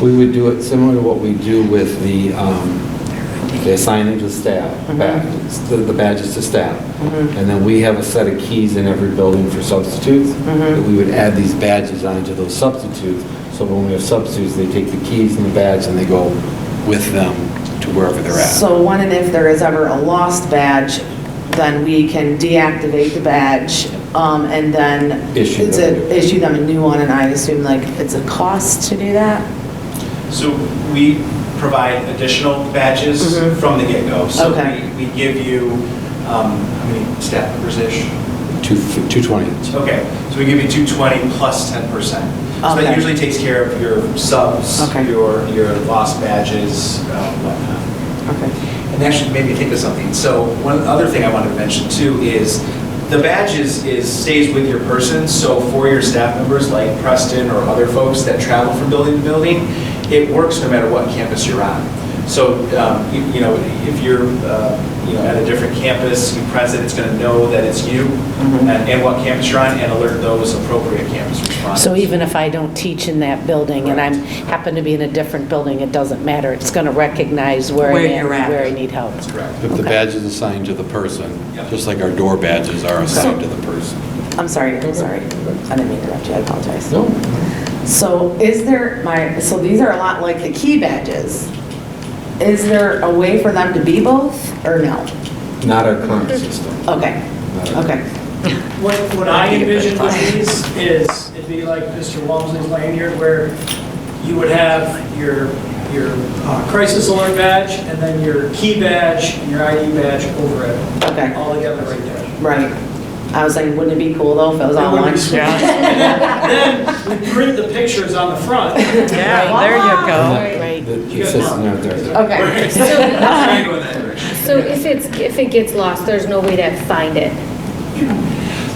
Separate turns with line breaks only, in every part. We would do it similar to what we do with the, um, the signage to staff,
Mm-hmm.
ba- the the badges to staff. And then we have a set of keys in every building for substitutes,
Mm-hmm.
that we would add these badges onto those substitutes. So when we have substitutes, they take the keys and the badge and they go with them to wherever they're at.
So one, and if there is ever a lost badge, then we can deactivate the badge um, and then.
Issue
it's
them a
a-
new one.
Issue them a new one, and I assume like it's a cost to do that?
So we provide additional badges
Mhm.
from the get-go. So
Okay.
we we give you, um, how many staff members-ish?
Two- 220.
Okay, so we give you 220 plus 10%. So
Okay.
that usually takes care of your subs,
Okay.
your, your lost badges, uh, whatnot.
Okay.
And actually made me think of something. So one other thing I wanted to mention too is the badge is, is, stays with your person. So for your staff members like Preston or other folks that travel from building to building, it works no matter what campus you're on. So, um, you you know, if you're, uh, you know, at a different campus, you present, it's going to know that it's you and and what campus you're on and alert those appropriate campus responders.
So even if I don't teach in that building and I'm, happen to be in a different building, it doesn't matter. It's going to recognize where I
Where
am,
you're at.
where I need help.
That's correct.
If the badge is assigned to the person,
Yep.
just like our door badges are assigned to the person.
I'm sorry, I'm sorry. I didn't mean to interrupt you, I apologize.
No,
So is there, my, so these are a lot like the key badges. Is there a way for them to be both, or no?
Not our current system.
Okay, okay,
What, what I envision with these is, it'd be like Mr. Walmsley's lanyard, where you would have your, your uh, crisis alert badge, and then your key badge, and your ID badge over it,
okay,
all together right there.
right. I was like, wouldn't it be cool though if it was
That
all
would be
one?
sweet. Then, we print the pictures on the front.
Yeah, there you
Oh,
go.
Right.
The the system out there.
Okay.
So
Trying to go in that direction.
so if it's, if it gets lost, there's no way to find it?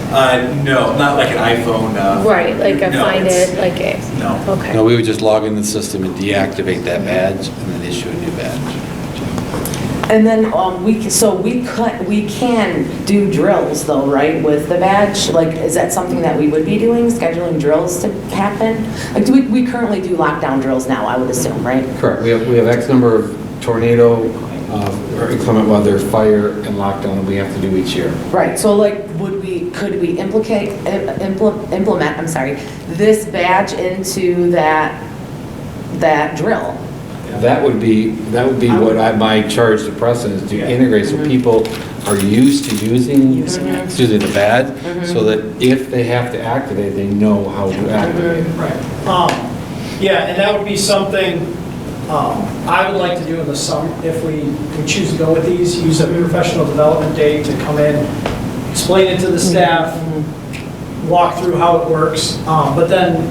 Uh, no, not like an iPhone. uh,
Right, like I
no,
find
it's-
it, like,
eh,
a-
No.
okay.
No, we would just log in the system and deactivate that badge and then issue a new badge.
And then, um, we, can- so we cut, we can do drills though, right, with the badge? Like, is that something that we would be doing, scheduling drills to happen? Like, do we, we currently do lockdown drills now, I would assume, right?
Correct. We have, we have X number of tornado, um, or inclement weather, fire, and lockdown that we have to do each year.
Right, so like, would we, could we implicate, uh, impl- implement, I'm sorry, this badge into that, that drill?
That would be, that would be what I, my charge to Preston is to integrate so people are used to using, excuse me, the
Mm-hmm.
badge, so that if they have to activate, they know how to activate it.
Right.
Um, Yeah, and that would be something um, I would like to do in the summer, if we we choose to go with these, use a professional development day to come in, explain it to the staff, walk through how it works, um, but then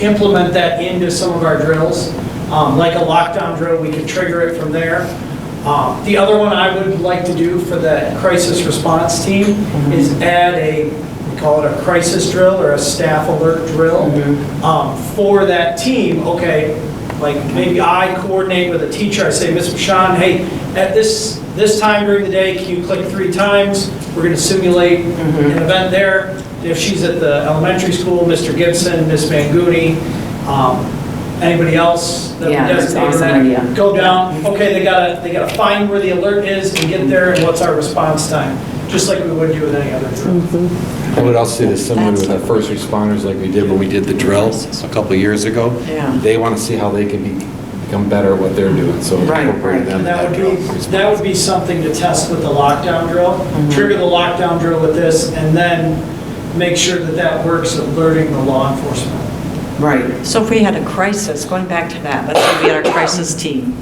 implement that into some of our drills. Um, Like a lockdown drill, we could trigger it from there. Um, The other one I would like to do for the crisis response team is add a, we call it a crisis drill or a staff alert drill um, for that team. Okay, like maybe I coordinate with a teacher, I say, Ms. Bashan, hey, at this, this time during the day, can you click three times? We're going to simulate an event there. If she's at the elementary school, Mr. Gibson, Ms. Manguni, um, anybody else that we
Yeah, that's
designate
awesome idea.
that, go down, okay, they gotta, they gotta find where the alert is and get there, and what's our response time, just like we would do with any other drill.
I would also say this similar with our first responders like we did when we did the drill a couple of years ago.
Yeah.
They want to see how they can be- become better at what they're doing, so
Right,
incorporate
right.
them. in
And that would
drill.
be, that would be something to test with the lockdown drill,
Mm-hmm.
trigger the lockdown drill with this, and then make sure that that works alerting the law enforcement.
Right.
So if we had a crisis, going back to that, let's say we had our crisis team,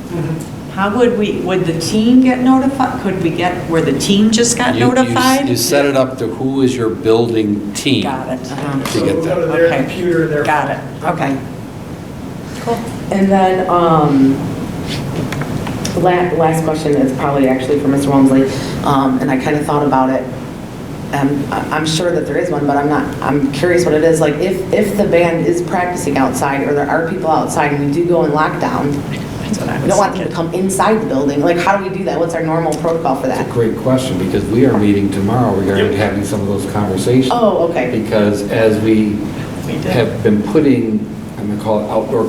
how would we, would the team get notified? Could we get where the team just got
You- you-
notified?
You set it up to who is your building team to
Got it.
get
So go
that.
to their
Okay.
computer, their.
Got it, okay.
And then, um, la- last question is probably actually for Mr. Walmsley, um, and I kind of thought about it. Um, I- I'm sure that there is one, but I'm not, I'm curious what it is. Like, if, if the band is practicing outside, or there are people outside, and we do go in lockdown,
That's what I
we
was
don't want them to
thinking.
come inside the building. Like, how do we do that? What's our normal protocol for that?
Great question, because we are meeting tomorrow regarding having some of those conversations.
Oh, okay.
Because as we have been putting, I'm going to call it outdoor